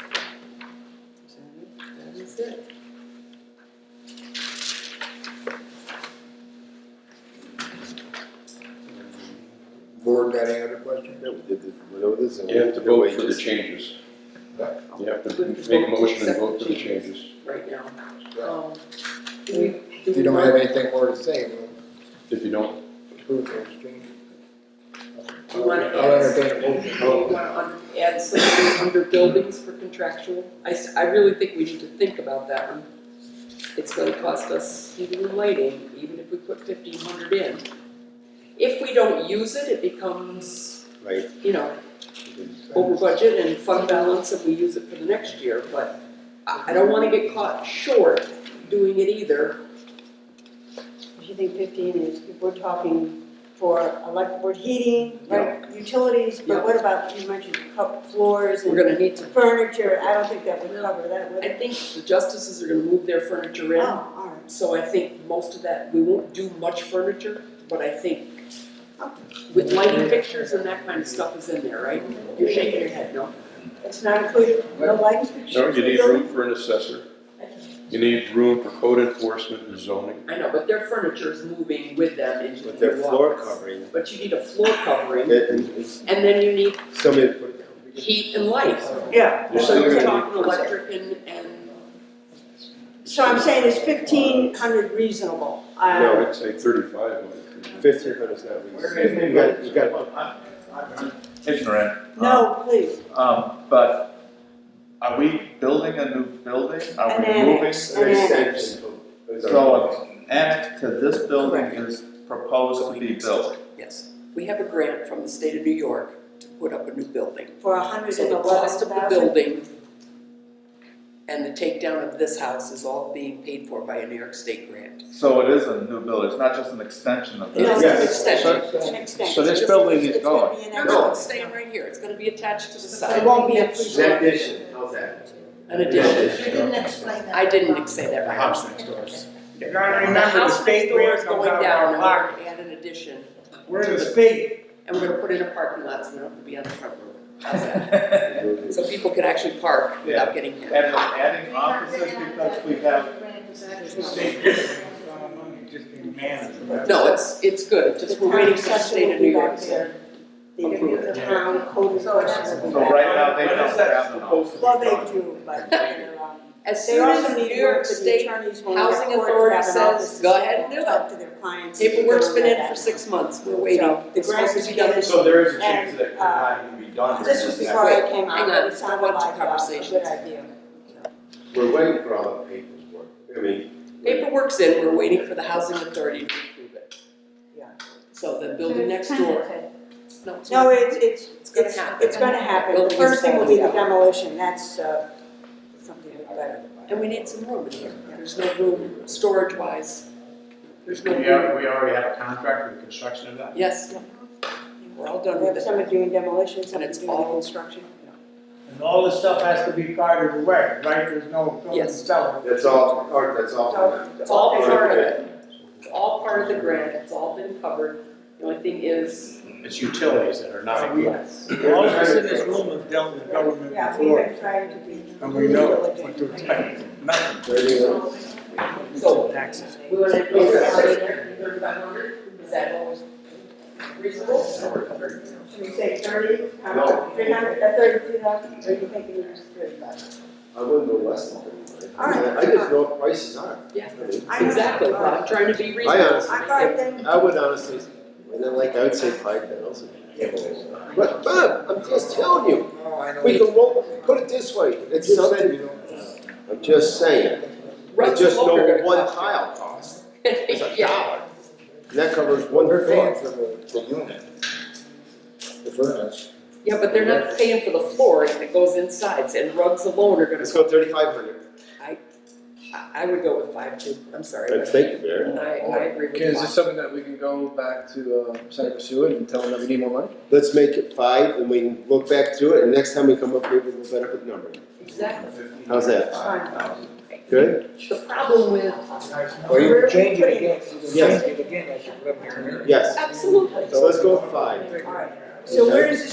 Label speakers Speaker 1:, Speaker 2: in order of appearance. Speaker 1: So, That is it.
Speaker 2: Board got any other questions?
Speaker 3: Yeah, we did this, whatever this. and
Speaker 4: You have to
Speaker 3: the
Speaker 4: vote for the
Speaker 3: wages.
Speaker 4: changes.
Speaker 2: Right.
Speaker 4: You have to make a motion and vote for the changes.
Speaker 1: Right now.
Speaker 2: Yeah.
Speaker 1: Um, do we- do
Speaker 2: If
Speaker 1: we
Speaker 2: you don't
Speaker 1: want-
Speaker 2: have anything more to say, we'll
Speaker 4: If you don't,
Speaker 2: approve those changes.
Speaker 1: Do you wanna
Speaker 2: I'll
Speaker 1: add,
Speaker 2: entertain a motion.
Speaker 1: do you wanna un- add something under buildings for contractual? I, s- I really think we need to think about that one. It's gonna cost us heating and lighting, even if we put fifteen hundred in. If we don't use it, it becomes,
Speaker 3: Right.
Speaker 1: you know, over budget and fund balance if we use it for the next year, but I, I don't wanna get caught short doing it either.
Speaker 5: If you think fifteen is, we're talking for elect, we're heating, right, utilities,
Speaker 1: Yeah.
Speaker 5: but what about, you mentioned cup floors
Speaker 1: We're
Speaker 5: and
Speaker 1: gonna need to,
Speaker 5: furniture, I don't think that would cover that, would
Speaker 1: I
Speaker 5: it?
Speaker 1: think the justices are gonna move their furniture in.
Speaker 5: Oh, all right,
Speaker 1: So I think most of that, we won't do much furniture, but I think with lighting fixtures and that kind of stuff is in there, right? You're shaking your head, no?
Speaker 5: it's not included, no lighting fixtures?
Speaker 4: no, you need
Speaker 5: no-
Speaker 4: room for an assessor. You need room for code enforcement and zoning.
Speaker 1: I know, but their furniture is moving with them into the
Speaker 3: With
Speaker 1: new
Speaker 3: their floor
Speaker 1: office.
Speaker 3: covering,
Speaker 1: But you need a floor covering,
Speaker 3: it, it's,
Speaker 1: and then you need
Speaker 3: somebody put it down.
Speaker 1: heat and lights.
Speaker 5: Yeah,
Speaker 4: You're
Speaker 1: So
Speaker 4: still
Speaker 1: you're
Speaker 4: gonna
Speaker 1: talking
Speaker 4: need-
Speaker 1: electric and, and,
Speaker 5: so I'm saying is fifteen hundred reasonable,
Speaker 4: No,
Speaker 5: uh,
Speaker 4: I'd say thirty-five. might be.
Speaker 3: Fifteen hundred's not reasonable. You got, you got,
Speaker 6: It's Moran.
Speaker 5: no, please,
Speaker 6: Um, but are we building a new building? Are
Speaker 5: An
Speaker 6: we moving?
Speaker 5: annex.
Speaker 3: an extension.
Speaker 6: So an annex to this building
Speaker 1: Correct.
Speaker 6: is proposed to be built.
Speaker 1: yes, we have a grant from the state of New York to put up a new building.
Speaker 5: for a hundred
Speaker 1: So
Speaker 5: and
Speaker 1: the
Speaker 5: eleven
Speaker 1: cost
Speaker 5: thousand.
Speaker 1: of the building and the takedown of this house is all being paid for by a New York State grant.
Speaker 6: So it is a new building, it's not just an extension of
Speaker 1: No,
Speaker 6: this.
Speaker 1: it's an extension.
Speaker 5: It's an extension.
Speaker 6: So this building is
Speaker 5: It's gonna be an
Speaker 1: No,
Speaker 5: extension.
Speaker 1: no, it's staying right here, it's gonna be attached to the
Speaker 5: So
Speaker 1: side.
Speaker 5: It won't be a free.
Speaker 3: An addition, how's that?
Speaker 1: An addition,
Speaker 7: You didn't explain that.
Speaker 1: I didn't say that right.
Speaker 3: next doors.
Speaker 8: You gotta remember, the state
Speaker 1: door
Speaker 8: grant
Speaker 1: is
Speaker 8: comes
Speaker 1: going
Speaker 8: out of
Speaker 1: down
Speaker 8: our
Speaker 1: and
Speaker 8: pocket.
Speaker 1: we're gonna add an addition,
Speaker 8: We're in the state,
Speaker 1: and we're gonna put in a parking lot, so we don't have to be on the front road. How's that? So people can actually park without getting hit.
Speaker 6: And we're adding offices because we have,
Speaker 8: uh, money just being managed.
Speaker 1: No, it's, it's good, just we're waiting for the state of New York to.
Speaker 5: The
Speaker 1: approve it.
Speaker 5: the town code enforcement. will be
Speaker 6: so
Speaker 5: back.
Speaker 6: right now they
Speaker 8: When
Speaker 6: don't
Speaker 8: is that
Speaker 6: have an office.
Speaker 5: Well, they do, but they're, um,
Speaker 1: As
Speaker 5: they
Speaker 1: soon
Speaker 5: also
Speaker 1: as
Speaker 5: need
Speaker 1: New
Speaker 5: to
Speaker 1: York
Speaker 5: work with the
Speaker 1: State
Speaker 5: attorneys when
Speaker 1: Housing
Speaker 5: they're
Speaker 1: Authority
Speaker 5: court, have an office
Speaker 1: says,
Speaker 5: to
Speaker 1: go
Speaker 5: sit
Speaker 1: ahead
Speaker 5: down
Speaker 1: and do
Speaker 5: talk to their clients.
Speaker 1: Paperwork's been in for
Speaker 5: and
Speaker 1: six months, we're waiting.
Speaker 5: So, the
Speaker 1: It's supposed to be done this-
Speaker 5: So
Speaker 6: there is
Speaker 5: a chance that it could not
Speaker 6: even be
Speaker 5: all that. uh, This was before I came
Speaker 1: Hang
Speaker 5: out,
Speaker 1: on,
Speaker 5: but it sounded
Speaker 1: I want to
Speaker 5: like uh, a
Speaker 1: conversations.
Speaker 5: good idea.
Speaker 3: We're waiting for all the paperwork, I mean.
Speaker 1: Paperwork's in, we're waiting for the housing authority to approve it.
Speaker 5: Yeah.
Speaker 1: So the building next door, no, it's
Speaker 5: No,
Speaker 1: not.
Speaker 5: it's, it's,
Speaker 1: It's gonna
Speaker 5: it's,
Speaker 1: happen.
Speaker 5: it's gonna happen. The
Speaker 1: Building is
Speaker 5: first thing will be the
Speaker 1: falling down.
Speaker 5: demolition, that's, uh, something we better.
Speaker 1: And we need some room in here, there's no room, storage wise, there's no room.
Speaker 8: already have a contract for construction of that?
Speaker 1: Yes, we're all done
Speaker 5: We
Speaker 1: with
Speaker 5: have
Speaker 1: it.
Speaker 5: someone doing demolition, someone
Speaker 1: it's
Speaker 5: doing
Speaker 1: all-
Speaker 5: construction.
Speaker 8: And all this stuff has to be carted away, right? There's no filling and
Speaker 1: Yes.
Speaker 8: selling.
Speaker 3: That's all, or that's all.
Speaker 1: It's all part of it, it's all part of the grant, it's all been covered, the only thing is.
Speaker 8: It's utilities that are
Speaker 1: not
Speaker 8: All of us in this room have dealt with government
Speaker 5: Yeah, we've
Speaker 8: before,
Speaker 5: been trying to be.
Speaker 8: and we know
Speaker 5: diligent.
Speaker 8: what to expect, nothing.
Speaker 1: So,
Speaker 8: Taxes.
Speaker 1: we wanna agree on thirty-five hundred, is that always reasonable?
Speaker 5: Should we say thirty,
Speaker 3: No.
Speaker 5: um, three hundred, uh, thirty-two thousand, or you thinking it's thirty-five?
Speaker 3: I wouldn't go less than thirty-five.
Speaker 5: All right.
Speaker 3: I just know what prices are.
Speaker 1: Yeah.
Speaker 3: I mean,
Speaker 1: Exactly, I'm trying to be reasonable.
Speaker 3: I honestly-
Speaker 5: All right, then,
Speaker 3: I would honestly, and then like, I would say five thousand. But Bob, I'm just telling you,
Speaker 2: No, Oh, I know.
Speaker 3: we can, wo- put it this way, it's something, I'm just saying, I
Speaker 1: Russ
Speaker 3: just know
Speaker 1: Logan
Speaker 3: what
Speaker 1: gonna cost
Speaker 3: one
Speaker 1: you.
Speaker 3: tile costs. It's a
Speaker 1: Yeah,
Speaker 3: dollar. And that covers one
Speaker 2: We're paying
Speaker 3: floor.
Speaker 2: for the, the unit. The furnace.
Speaker 1: yeah, but they're not paying for the flooring that goes inside, and rugs alone are gonna,
Speaker 3: Let's go thirty-five hundred.
Speaker 1: I, I would go with five too, I'm sorry. but
Speaker 3: Thank you, Mayor.
Speaker 1: I, I agree with
Speaker 9: Okay, is this
Speaker 1: five.
Speaker 9: something that we can go back to, uh, Senator Seward and tell them that we need more money?
Speaker 3: Let's make it five and we can look back to it and next time we come up here, we'll better put a number.
Speaker 1: Exactly,
Speaker 3: How's that? Good?
Speaker 1: the problem with,
Speaker 2: Or you
Speaker 5: We're
Speaker 2: can change it
Speaker 5: putting-
Speaker 2: again, you can
Speaker 3: Yes.
Speaker 2: change it again, as you come here.
Speaker 3: Yes.
Speaker 1: absolutely.
Speaker 3: So let's go with five.
Speaker 5: all right, so where is this